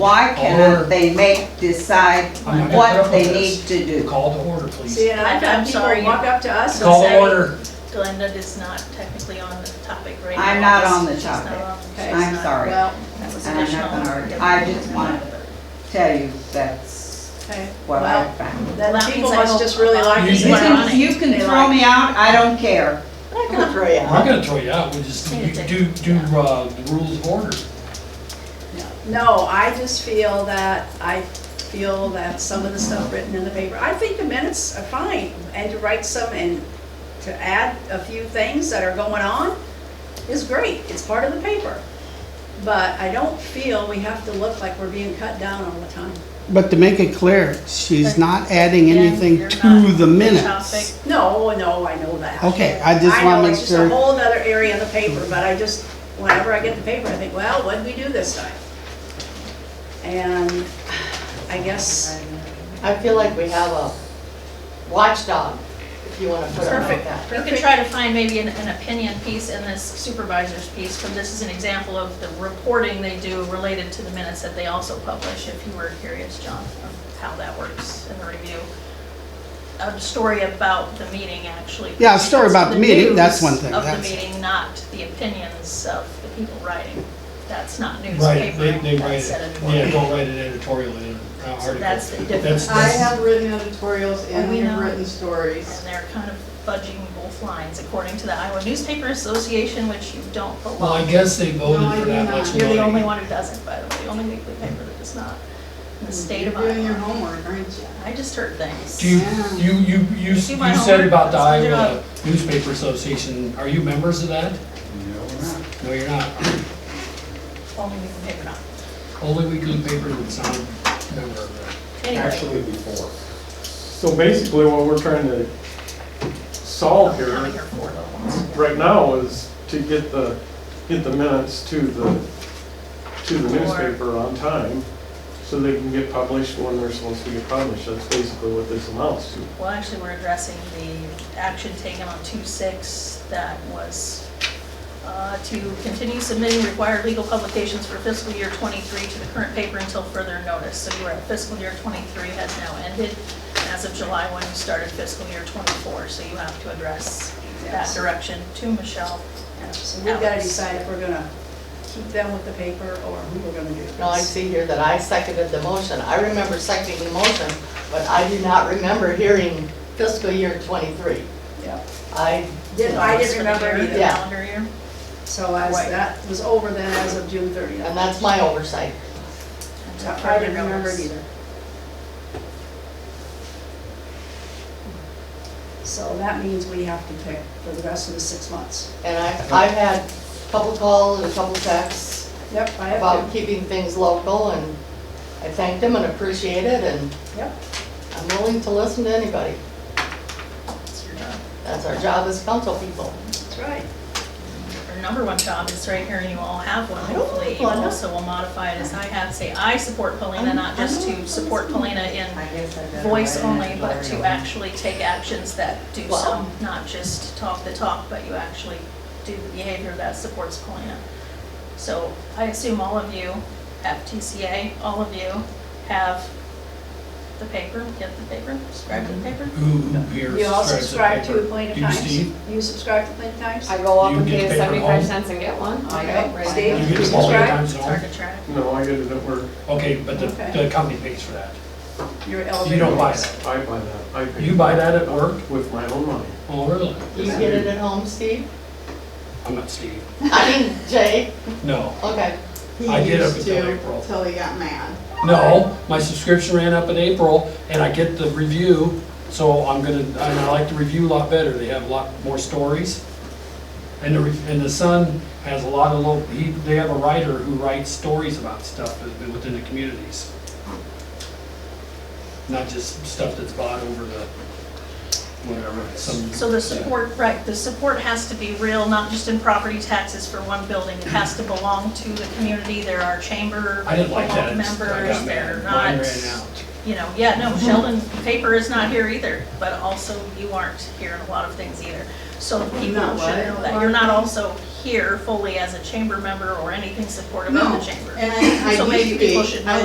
Why Or- cannot they make, decide I'm not gonna put what up they with need this. to do? Call to order, please. See, and I've I'm had people sorry. walk up to us and Call to say, order. Glenda is not technically on the topic right now. I'm not on the She's not topic. on- she's Okay. I'm not- sorry, well, That was and I'm not additional. gonna argue. I just wanted- tell you that's okay, what I well, found. Well, then that people means I must hope just really like You you. You We're on it. can, you can They throw like- me out, I don't care. I'm not gonna throw you We're out. not gonna throw you out, we just, you do, do, uh, the rules of order. No, I just feel that, I feel that some of the stuff written in the paper, I think the minutes are fine, and to write some and to add a few things that are going on is great, it's part of the paper. But I don't feel we have to look like we're being cut down all the time. But to make it clear, she's But not adding anything Again, you're not to on topic. the minutes. No, oh, no, I know that. Okay, I just I want know, to make it's just a sure. whole other area of the paper, but I just, whenever I get the paper, I think, well, what did we do this time? And I guess, I feel like we have a watchdog, if you want to put it like Perfect. that. You could try to find maybe an, an opinion piece in this supervisor's piece, because this is an example of the reporting they do related to the minutes that they also publish, if you were curious, John, of how that works in the review. A story about the meeting, actually. Yeah, a story about the meeting, that's one thing, Of the that's- meeting, not the opinions of the people writing. That's not Right, newspaper, they, they write that's it, editorial. yeah, don't write it editorially in an article. that's the difference. That's- I that's- have written editorials and We have know. written stories. And they're kind of fudging both lines according to the Iowa Newspaper Association, which you don't Well, I belong. guess they voted No, I for do that not. much You're the only money. one who doesn't, by the way, the only weekly paper that does not, in the state of You're doing your Iowa. homework, aren't you? I just heard things. Do you, you, you, you, you See my said homework? about the That's my Iowa Newspaper Association, are you members of that? No, you're not. Only weekly paper, not. Only weekly paper that's not a member of that. Anyway, actually before. So basically, what we're trying to solve I'm coming here here, for little ones. right now, is to get the, get the minutes to the, to the newspaper on time, so they can get published when they're supposed to get published, that's basically what this amounts to. Well, actually, we're addressing the action taken on two six that was uh, to continue submitting required legal publications for fiscal year twenty-three to the current paper until further notice. So you are at fiscal year twenty-three has now ended as of July when you started fiscal year twenty-four. So you have to address that Yes. direction to Michelle and so we've gotta Alex. decide if we're gonna keep them with the paper or who we're gonna do. Now, I see here that I seconded the motion. I remember seconding the motion, but I do not remember hearing fiscal year '23. Yeah. I, Didn't, I Just didn't for the remember year, the either, Yeah. Calendar year. so as, Right. that was over then as of June thirtieth. and that's my oversight. I didn't remember it either. So that means we have to pick for the rest of the six months. And I've, I've had a couple calls and a couple texts Yep, I have about to. keeping things local, and I thank them and appreciate it, and Yep. I'm willing to listen to anybody. It's your job. That's our job as council people. That's right. Our number one job is right here, and you all have one, don't hopefully. have You one. also will modify it as I have, say, I support Polina, not just to support Polina in voice only, but to actually take actions that do Wow. some, not just talk the talk, but you actually do the behavior that supports Polina. So I assume all of you have TCA, all of you have the paper, get the paper, subscribe to the paper. Who here You all subscribe subscribes to to the Plain paper? Times? Do you, Steve? You subscribe to Plain Times? I go up You and get pay paper home? seventy-five cents and get one. I Okay. go right Steve? there. You get small Subscribe? times, It's no? hard to track. No, I get it at work, Okay, but the, Okay. the company pays for that. Your You elevator. don't buy voice. that. I buy that, I pay. You buy that at work? With my own money. Oh, really? You get it at home, Steve? I'm not Steve. I mean, Jay, No, okay. He I did up used until to April. Till he got mad. No, my subscription ran up in April and I get the review, so I'm gonna, and I like the review a lot better. They have a lot more stories. And the, re- and the Sun has a lot of local, he, they have a writer who writes stories about stuff that's been within the communities. Not just stuff that's bought over the, whatever, some. So the support, right, the support has to be real, not just in property taxes for one building. It has to belong to the community. There are chamber I didn't like that. It's- I members, got they're mad. Mine not, ran out. you know, yeah, no, Sheldon paper is not here either, but also you aren't here in a lot of things either. So people Not should know what? that. You're not also here fully as a chamber member or anything supportive of No, the chamber. And I- So I maybe used to be. people should I know